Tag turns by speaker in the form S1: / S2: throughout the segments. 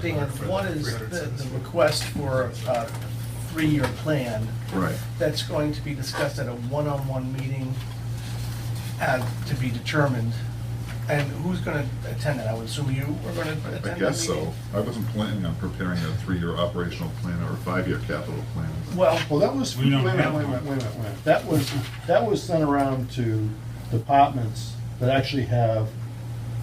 S1: thing, and one is the, the request for a three-year plan
S2: Right.
S1: that's going to be discussed at a one-on-one meeting uh, to be determined. And who's gonna attend that? I would assume you are gonna attend that
S2: I
S1: meeting?
S2: guess so. I wasn't planning on preparing a three-year operational plan or a five-year capital plan.
S1: Well,
S3: Well, that was,
S4: We
S3: wait a
S4: don't
S3: minute, wait a
S4: have
S3: minute,
S4: one.
S3: wait a minute, wait a minute. That was, that was sent around to departments that actually have.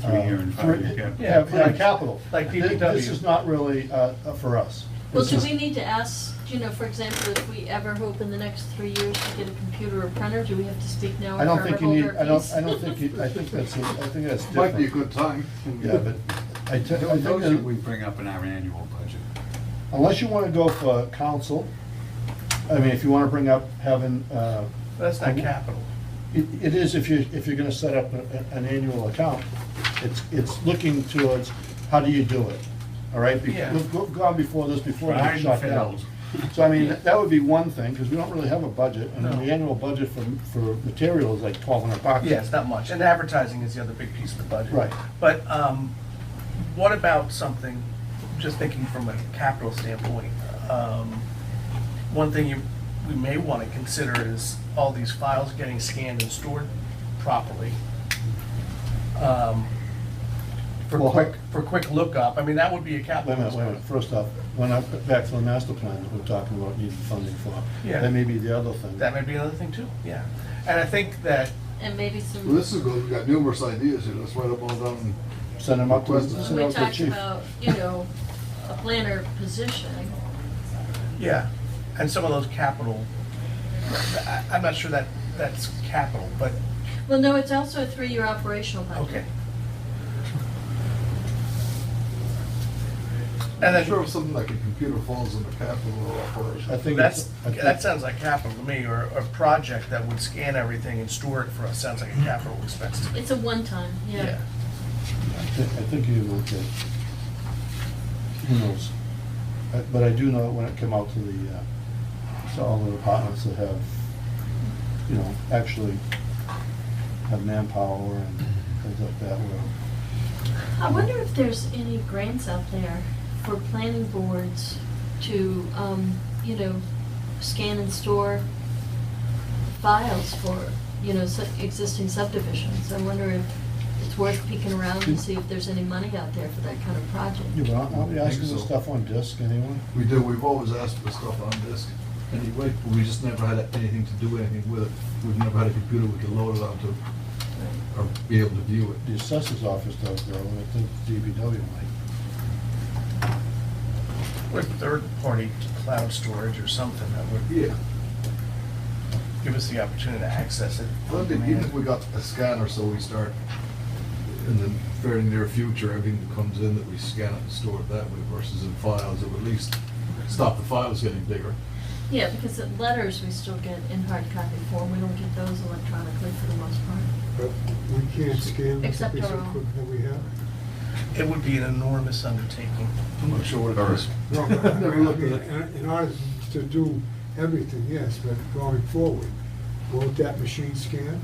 S3: uh,
S4: Three-year and five-year
S3: three-
S4: capital.
S3: Have,
S1: Yeah,
S3: have
S1: like-
S3: capital.
S1: like
S3: Thi- This
S1: DPW.
S3: is not really, uh, uh, for us.
S5: Well,
S3: This
S5: do
S3: is-
S5: we need to ask, you know, for example, if we ever hope in the next three years to get a computer or printer, do we have to speak now
S3: I
S5: or
S3: don't
S5: forever
S3: think you
S5: hold
S3: need,
S5: our
S3: I don't,
S5: peace?
S3: I don't think you, I think that's, a- I think that's different.
S6: Might be a good time.
S3: Yeah, but I te- I
S4: Those
S3: think
S4: that we
S3: that
S4: bring up in our annual budget.
S3: unless you wanna go for council, I mean, if you wanna bring up having, uh,
S1: that's not capital.
S3: It, it is if you, if you're gonna set up a- a- an annual account. It's, it's looking towards, how do you do it? All right? Be-
S1: Yeah.
S3: We've go- gone before this, before we
S4: Tried and
S3: got shot down. So I mean, that would be one thing, because we don't really have a budget, and
S1: No.
S3: the annual budget for, for material is like twelve hundred bucks.
S1: Yeah, it's not much, and advertising is the other big piece of the budget.
S3: Right.
S1: But um, what about something, just thinking from a capital standpoint, um, one thing you, we may want to consider is all these files getting scanned and stored properly. um, For
S3: Well,
S1: quick, for quick lookup, I mean, that would be a
S3: Wait a
S1: capital.
S3: minute, wait a minute, first off, when I, back to the master plan that we're talking about needing funding for,
S1: Yeah.
S3: that may be the other thing.
S1: That may be another thing too, yeah. And I think that,
S5: And maybe
S6: Well,
S5: some,
S6: this is good, we've got numerous ideas here, let's write up all down.
S3: Send them up to,
S6: Request-
S3: send
S5: we
S3: them up to the
S5: talked
S3: chief.
S5: about, you know, a planner position.
S1: yeah, and some of those capital, I- I'm not sure that, that's capital, but
S5: Well, no, it's also a three-year operational budget.
S1: Okay. And
S6: I'm sure
S1: then,
S6: if something like a computer falls into capital or
S3: I
S6: operation.
S3: think
S1: that's,
S3: it's, I think-
S1: that sounds like capital to me, or a project that would scan everything and store it for us, sounds like a capital expense to me.
S5: It's a one-time, yeah.
S3: I thi- I think you will get, who knows? I- But I do know that when it came out to the, uh, to all the departments that have, you know, actually have manpower and things like that, where
S5: I wonder if there's any grants out there for planning boards to, um, you know, scan and store files for, you know, su- existing subdivisions. I wonder if it's worth peeking around and see if there's any money out there for that kind of
S3: you
S5: project.
S3: know, aren't we asking
S6: Think
S3: for
S6: so.
S3: stuff on disc anyway?
S6: We do, we've always asked for stuff on disk anyway, but we just never had anything to do anything with it. We've never had a computer we could load it onto or be able to view it.
S3: The assessor's office does though, and I think DBW might.
S1: With third-party cloud storage or something that would
S6: Yeah,
S1: give us the opportunity to access it.
S6: Well, I mean, even if we got a scanner, so we start in the very near future, everything that comes in that we scan it and store it that way versus in files, it would at least stop the files getting bigger.
S5: Yeah, because the letters we still get in hard copy form, we don't get those electronically for the most part.
S7: But we can't scan the piece of
S5: Except our own.
S7: equipment that we have.
S1: It would be an enormous undertaking.
S6: I'm not sure what it is.
S7: No, but I mean, In in order to do everything, yes, but going forward, won't that machine scan?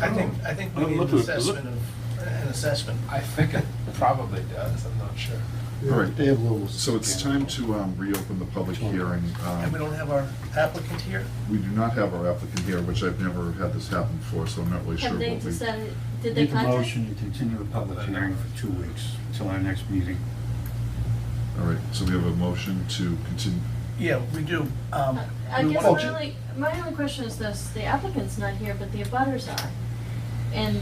S1: I think,
S5: Oh.
S1: I think we
S8: Well,
S1: need
S8: look
S1: an
S8: at- look-
S1: assessment of, an assessment.
S9: I think it probably does, I'm not sure.
S7: Yeah.
S2: All right.
S3: They have little.
S2: So it's time to um, reopen the public hearing. Um,
S1: And we don't have our applicant here?
S2: We do not have our applicant here, which I've never had this happen before, so I'm not really sure
S5: Have
S2: what we.
S5: they decided, did they
S4: Make a
S5: contact?
S4: motion to continue the public hearing for two weeks, till our next meeting.
S2: All right, so we have a motion to continue.
S1: Yeah, we do. Um,
S5: I
S1: we
S5: guess
S1: wanna-
S5: my only, my only question is this, the applicant's not here, but the abutters are. And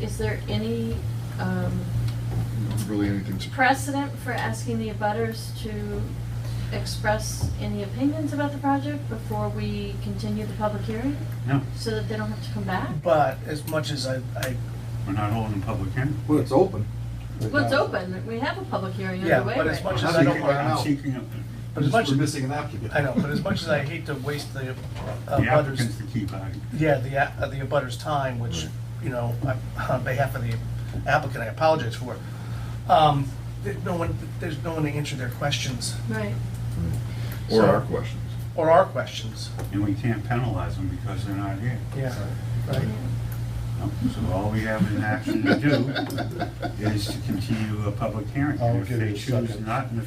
S5: is there any um,
S2: Really anything to.
S5: precedent for asking the abutters to express any opinions about the project before we continue the public hearing?
S4: No,
S5: So that they don't have to come back?
S1: But as much as I, I
S4: we're not holding a public hearing.
S6: Well, it's open.
S3: right
S5: Well, it's
S3: now.
S5: open, we have a public hearing
S1: Yeah,
S5: underway
S1: but
S5: right
S1: as much
S5: now.
S1: as I don't
S6: want
S4: I'm
S6: out.
S4: seeking a-
S1: But as much,
S6: We're missing an applicant.
S1: I know, but as much as I hate to waste the uh,
S4: The applicant's
S1: butters,
S4: the key body.
S1: yeah, the, a- uh, the abutters' time, which, you know, I- on behalf of the applicant, I apologize for. Um, there- No one, there's no one to answer their questions,
S5: Right,
S2: Or our questions.
S1: or our questions.
S4: And we can't penalize them because they're not here.
S1: Yeah. Right.
S4: No, So all we have in action to do is to continue a public hearing.
S3: I'll
S4: If
S3: give
S4: they
S3: it a
S4: choose
S3: second.
S4: not in the